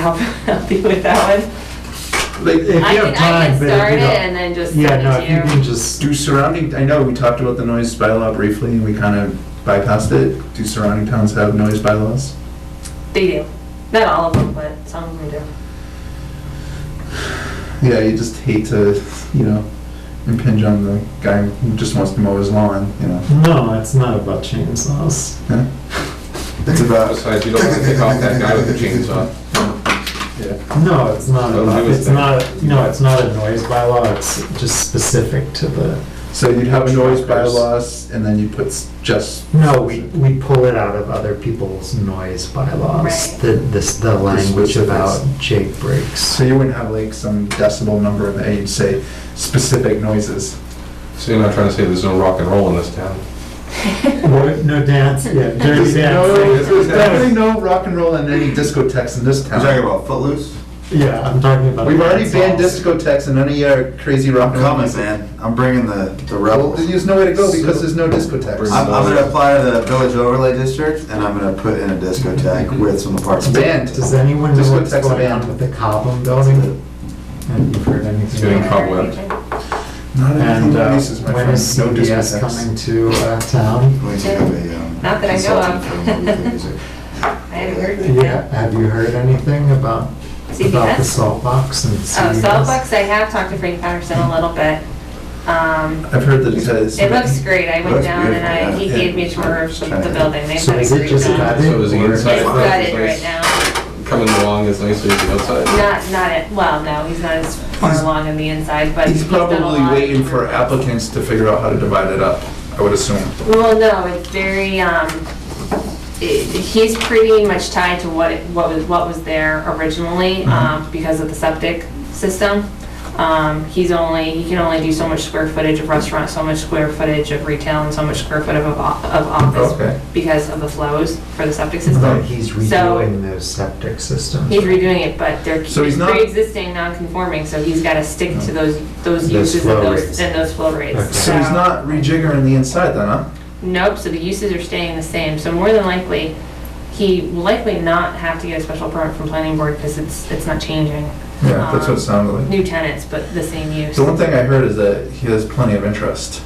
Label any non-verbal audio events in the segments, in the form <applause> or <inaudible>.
help help you with that one? Like, if you I have can- I time, can but start if you it don't- and then just Yeah, send it no, to if you you. can just, Do surrounding, I know we talked about the noise bylaw briefly and we kind of bypassed it. Do surrounding towns have noise bylaws? They do. Not all of them, but some of them do. Yeah, you just hate to, you know, impinge on the guy who just wants to mow his lawn, you know. no, it's not about chainsaws. Yeah. It's about, Besides, you don't want to pick off that guy with the chainsaw. yeah, No, it's not Don't about, do his it's thing. not, no, it's not a noise bylaw, it's just specific to the, so you'd have a noise bylaws and then you put s- just. no, we, we pull it out of other people's noise bylaws. Right. The, this, the language specifics. about Jake breaks. So you wouldn't have like some decibel number in there, you'd say specific noises. So you're not trying to say there's no rock and roll in this town? What, no dance, yeah, dirty There's no, there's definitely dance. no rock and roll in any discotheques in this town. You're talking about Footloose? Yeah, I'm talking about. We've already banned chainsaws. discotheques and none of your crazy rock I'm and roll coming, music. man. I'm bringing the, the Well, rebels. then there's nowhere to go because there's no discotheques. I'm, I'm gonna apply to the village overlay district and I'm gonna put in <laughs> a discotheque with some apartments. It's banned. Does anyone know what's Discotheques are going on banned. with the Cobham building? Have you heard anything? It's getting about it? cobwebbed. Not And anything uh, releases, my when friend. is No CBS coming discotheques. to uh, town? We should have a, um, Not that I know of. consultant for <laughs> movie music. I haven't heard of Yeah, that. have you heard anything about, about the CBS? salt box and Oh, CBS? Soapbox, I have talked to Frank Patterson a little bit. Um, I've heard that it has. It looks great. I went Looks down and I, he beautiful, yeah. gave me a tour of the the building. They've So got a is it great just job. gutted? So is the or- inside- It's gutted right now. Coming along as nicely as the outside? Not, not at, well, no, he's not as far He's- along on the inside, but. He's done a probably lot. waiting for applicants to figure out how to divide it up, I would assume. Well, no, it's very, um, it- he's pretty much tied to what, it- what was, what was there originally, Mm-hmm. um, because of the septic system. Um, he's only, he can only do so much square footage of restaurant, so much square footage of retail, and so much square foot of, of Okay. office because of the flows for the septic But system. he's So- redoing those septic systems. He's redoing it, but they're So he's not- pre-existing, non-conforming, so he's gotta stick to those, those Those uses flow and rates. those, and those flow rates. Okay. So he's not rejiggering the inside then, huh? Nope, so the uses are staying the same, so more than likely, he will likely not have to get a special permit from planning board because it's, it's not changing. Yeah, that's what it Um, sounded like. New tenants, but the same use. The one thing I heard is that he has plenty of interest.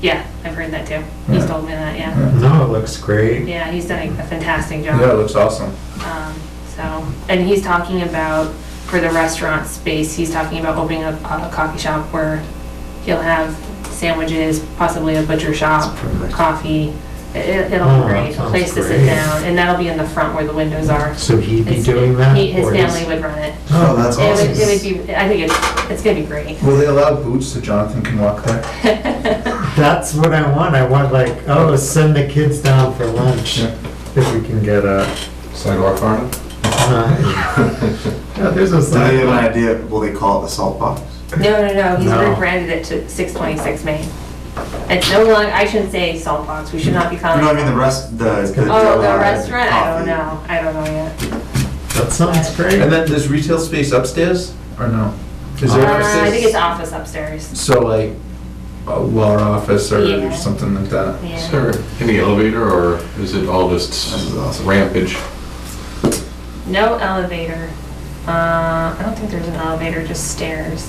Yeah, I've heard that too. He's Yeah. told me that, yeah. Yeah, No, it looks great. Yeah, he's done a fantastic job. Yeah, it looks awesome. Um, So, and he's talking about, for the restaurant space, he's talking about opening up a coffee shop where he'll have sandwiches, possibly a butcher shop, perfect. coffee. It- It'll Oh, be great, a sounds place to sit great. down, and that'll be in the front where the windows are. So he'd be His- doing that? he- His or he's- family would run it. Oh, that's It would, it awesome. would be, I think it's, it's gonna be great. Will they allow boots so Jonathan can walk there? That's what I want. I want like, oh, send the kids down for lunch Yeah. if we can get a. uh, Sidewalk farm? <laughs> <laughs> Yeah, there's a Do they have an sidewalk. idea, will they call it the salt box? <laughs> No, no, no, he's No. rebranded it to six twenty-six Main. It's no longer, I shouldn't say salt box, we should not be You calling it. know what I mean, the rest, the. Oh, the uh, restaurant? I don't coffee. know. Oh, I don't know yet. That sounds great. And then there's retail space upstairs or no? Is there Uh, I upstairs? think it's office upstairs. So like a law office or Yeah. something like that? Is Yeah. there any elevator or is it all This just is awesome. rampage? No elevator. Uh, I don't think there's an elevator, just stairs.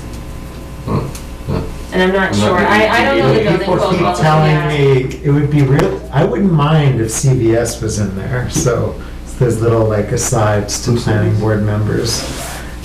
Hmm, hmm. And I'm not I'm not sure. really- I, I don't know the you building People code. well, keep telling yeah. me it would be real, I wouldn't mind if CVS was in there, so there's little like asides to planning board members.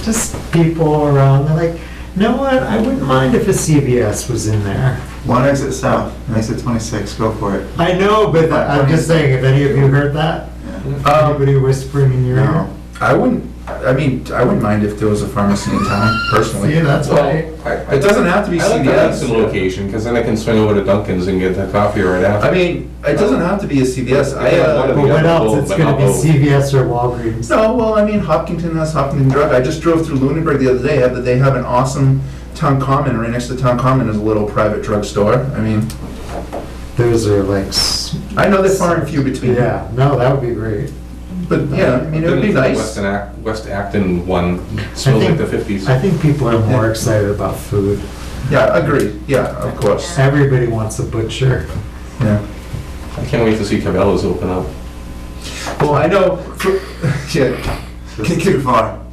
Just people around, they're like, you know what, I wouldn't mind if a CVS was in there. One exit south, exit twenty-six, go for it. I know, but I'm just saying, have any of you heard that? Yeah. Um, Anybody whispering in your ear? No. I wouldn't, I mean, I wouldn't mind if there was a pharmacy in town personally. See, that's why, It doesn't have to be I like the Hudson CVS. location, because then I can swing over to Dunkin's and get that coffee right after. I mean, it doesn't have to be a CVS. I, but uh, Yeah, what else, it's but gonna be I'll- CVS or Walgreens. no, well, I mean, Hopkinton has Hopkinton Drive. I just drove through Lunenburg the other day. Have- They have an awesome town common, right next to town common is a little private drugstore. I mean, Those are like. s- I know they're far and few between. Yeah, no, that would be great. But yeah, I mean, it would be Been to the nice. West Ac- West Acton one, smells think- like the fifties. I think people are more Yeah. excited about food. Yeah, agreed. Yeah, of course. Everybody wants a butcher. Yeah. I can't wait to see Cabela's open up. Well, I know, <laughs> yeah, This is too far.